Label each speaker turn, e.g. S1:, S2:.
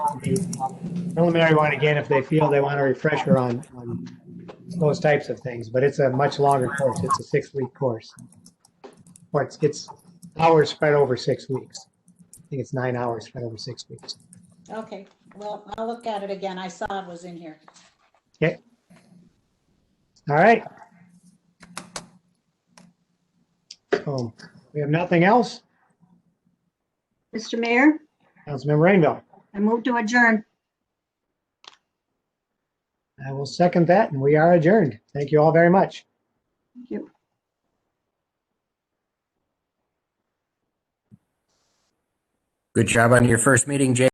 S1: preliminary one again if they feel they want a refresher on, on those types of things, but it's a much longer course. It's a six-week course. Or it's, it's hours spread over six weeks. I think it's nine hours spread over six weeks.
S2: Okay, well, I'll look at it again. I saw it was in here.
S1: All right. So we have nothing else.
S3: Mr. Mayor,
S1: Councilmember Rainville,
S3: I move to adjourn.
S1: I will second that and we are adjourned. Thank you all very much.
S3: Thank you.
S4: Good job on your first meeting, Jay.